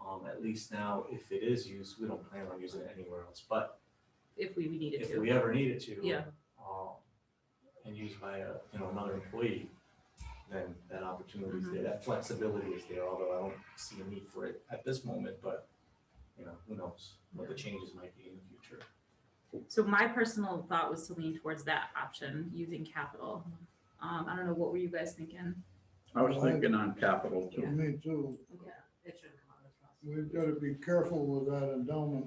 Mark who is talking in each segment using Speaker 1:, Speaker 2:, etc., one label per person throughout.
Speaker 1: Um, least now, if it is used, we don't plan on using it anywhere else, but
Speaker 2: if we needed
Speaker 1: if
Speaker 2: to.
Speaker 1: we ever needed to.
Speaker 2: Yeah.
Speaker 1: um, And used by a, you know, another employee, then that opportunity is there, that flexibility is there, although I don't see a need for it at this moment, but, you know, who knows what the changes might be in the future.
Speaker 2: So my personal thought was to lean towards that option, using capital.
Speaker 3: Mm-hmm.
Speaker 2: Um, I don't know, what were you guys thinking?
Speaker 4: I was thinking on capital
Speaker 2: Yeah.
Speaker 4: too.
Speaker 5: Me too.
Speaker 2: Okay.
Speaker 3: It shouldn't come out of trust.
Speaker 5: We've got to be careful with that endowment.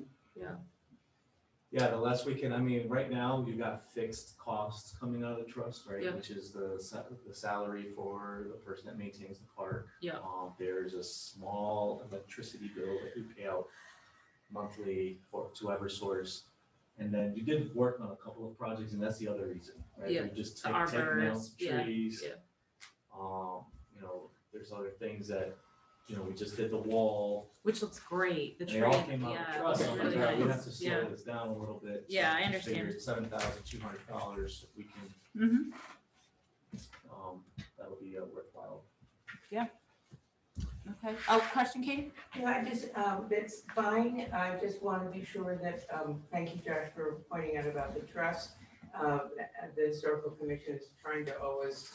Speaker 1: Yeah, the less we can, I mean, right now, you've got fixed costs coming out of the trust,
Speaker 2: Yeah.
Speaker 1: right? Which is the, sa- the salary for the person that maintains the park.
Speaker 2: Yeah.
Speaker 1: Um, there's a small electricity bill that we pay out monthly for, to Eversource. And then you did work on a couple of projects, and that's the other reason, right?
Speaker 2: Yeah,
Speaker 1: We just
Speaker 2: the
Speaker 1: take, take down
Speaker 2: arborist, yeah,
Speaker 1: trees.
Speaker 2: yeah.
Speaker 1: Um, you know, there's other things that, you know, we just did the wall,
Speaker 2: Which looks great, the tree,
Speaker 1: they all came out of
Speaker 2: yeah,
Speaker 1: trust,
Speaker 2: looks
Speaker 1: I'm like,
Speaker 2: really
Speaker 1: "All right, we have
Speaker 2: nice,
Speaker 1: to
Speaker 2: yeah.
Speaker 1: slow this down a little bit.
Speaker 2: Yeah, I understand.
Speaker 1: Seven thousand two hundred dollars, if we can,
Speaker 2: Mhm.
Speaker 1: um, that would be uh, worthwhile.
Speaker 2: okay. Oh, question, Kate?
Speaker 3: Yeah, I just, um, that's fine, I just want to be sure that, um, thank you, Josh, for pointing out about the trust. Uh, The historical commission is trying to always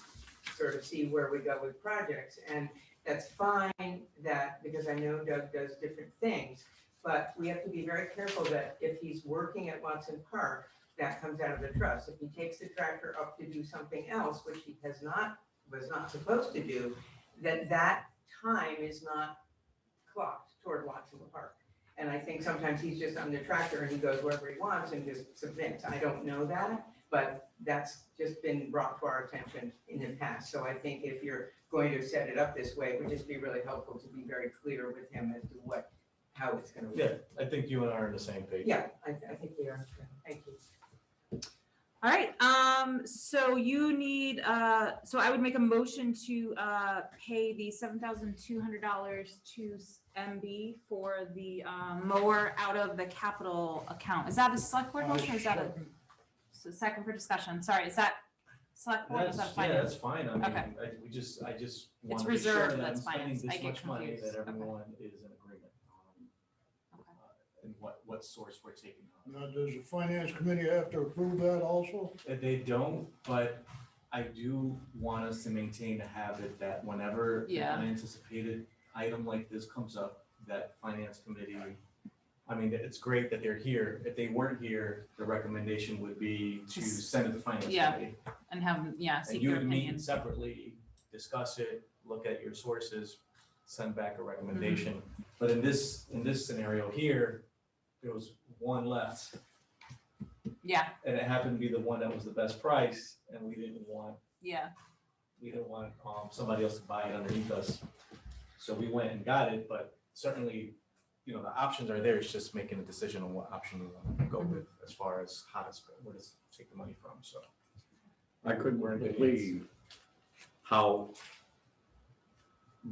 Speaker 3: sort of see where we go with projects, and that's fine that, because I know Doug does different things, but we have to be very careful that if he's working at Watson Park, that comes out of the trust. If he takes the tractor up to do something else, which he has not, was not supposed to do, then that time is not clocked toward Watson Park. And I think sometimes he's just on the tractor and he goes wherever he wants and just submits. I don't know that, but that's just been brought to our attention in the past. So I think if you're going to set it up this way, it would just be really helpful to be very clear with him as to what, how it's gonna
Speaker 1: Yeah,
Speaker 3: work.
Speaker 1: I think you and I are on the same page.
Speaker 3: Yeah, I, I think we are. Thank you.
Speaker 2: All right, um, so you need, uh, so I would make a motion to, uh, pay the seven thousand two hundred dollars to MB for the, um, mower out of the capital account. Is that a select
Speaker 1: Uh,
Speaker 2: board motion or is that a, so second for discussion? Sorry, is that select board? or
Speaker 1: That's,
Speaker 2: Is that
Speaker 1: yeah,
Speaker 2: finance?
Speaker 1: that's fine, I mean,
Speaker 2: Okay.
Speaker 1: I, we just, I just want to be
Speaker 2: reserved,
Speaker 1: sure that I'm
Speaker 2: that's
Speaker 1: spending
Speaker 2: finance. I
Speaker 1: this
Speaker 2: get
Speaker 1: much money,
Speaker 2: confused.
Speaker 1: that
Speaker 2: Okay.
Speaker 1: everyone is in agreement. um,
Speaker 2: Okay. Mm-hmm.
Speaker 1: uh, And what, what source we're taking on.
Speaker 5: Now, does the finance committee have to approve that also?
Speaker 1: Uh, They don't, but I do want us to maintain a habit that whenever an
Speaker 2: Yeah.
Speaker 1: unanticipated item like this comes up, that finance committee, I mean, it's great that they're here. If they weren't here, the recommendation would be to
Speaker 2: Just-
Speaker 1: send it to finance
Speaker 2: yeah,
Speaker 1: committee.
Speaker 2: And have, yeah, seek
Speaker 1: And you
Speaker 2: their
Speaker 1: would meet
Speaker 2: opinion.
Speaker 1: separately, discuss it, look at your sources, send back a recommendation.
Speaker 2: Mm-hmm.
Speaker 1: But in this, in this scenario here, there was one left
Speaker 2: Yeah,
Speaker 1: and it happened to be the one that was the best price, and we didn't want,
Speaker 2: yeah,
Speaker 1: we didn't want, um, somebody else to buy it underneath us. So we went and got it, but certainly, you know, the options are there, it's just making a decision on what option we want to go
Speaker 4: Mm-hmm.
Speaker 1: with as far as how to spend, where to s- take the money from, so.
Speaker 4: I couldn't
Speaker 1: We're in good hands.
Speaker 4: believe how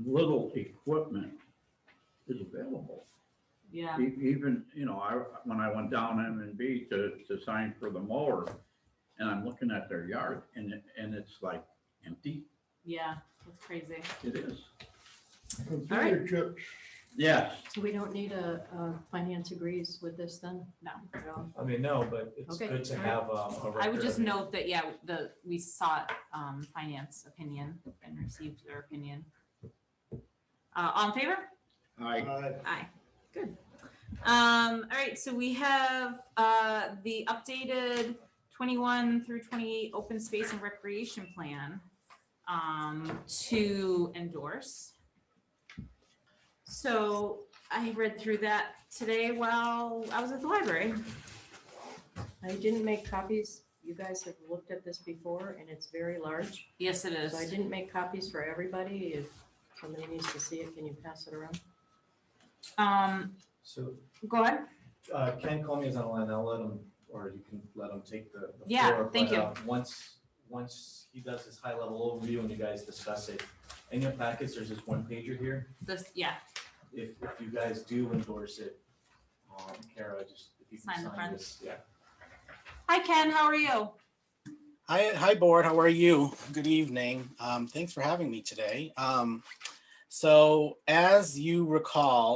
Speaker 4: little equipment is available.
Speaker 2: yeah.
Speaker 4: E- Even, you know, I, when I went down M and B to, to sign for the mower, and I'm looking at their yard, and, it- and it's like empty,
Speaker 2: Yeah, that's crazy.
Speaker 4: it is.
Speaker 5: Computer chips,
Speaker 4: Yes,
Speaker 6: So we don't need a, a finance agrees with this then?
Speaker 2: No.
Speaker 1: I mean, no, but it's
Speaker 6: Okay,
Speaker 1: good to
Speaker 6: all right.
Speaker 1: have, um, a record.
Speaker 2: I would just
Speaker 1: of it.
Speaker 2: note that, yeah, the, we sought, um, finance opinion and received their opinion. Uh, all in favor?
Speaker 4: I,
Speaker 5: I,
Speaker 2: Aye. Good. Um, all right, so we have, uh, the updated twenty-one through twenty-eight open space and recreation plan, um, to endorse. So I read through that today while I was at the library.
Speaker 6: I didn't make copies. You guys have looked at this before and it's very large.
Speaker 2: Yes, it
Speaker 6: So I
Speaker 2: is.
Speaker 6: didn't make copies for everybody. If somebody needs to see it, can you pass it around?
Speaker 2: Um,
Speaker 1: So,
Speaker 2: go ahead.
Speaker 1: uh, Ken Comey's on the line, I'll let him, or you can let him take the. the
Speaker 2: Yeah,
Speaker 1: floor,
Speaker 2: thank
Speaker 1: but,
Speaker 2: you.
Speaker 1: uh, Once, once he does his high level overview and you guys discuss it, in your packets, there's this one pager here.
Speaker 2: This, yeah,
Speaker 1: If, if you guys do endorse it, um, Kara, just, if you
Speaker 2: Sign
Speaker 1: can
Speaker 2: the
Speaker 1: sign
Speaker 2: front.
Speaker 1: this, yeah.
Speaker 2: hi Ken, how are you?
Speaker 7: Hi, hi, board. How are you? Good evening. Um, thanks for having me today. Um, so, as you recall,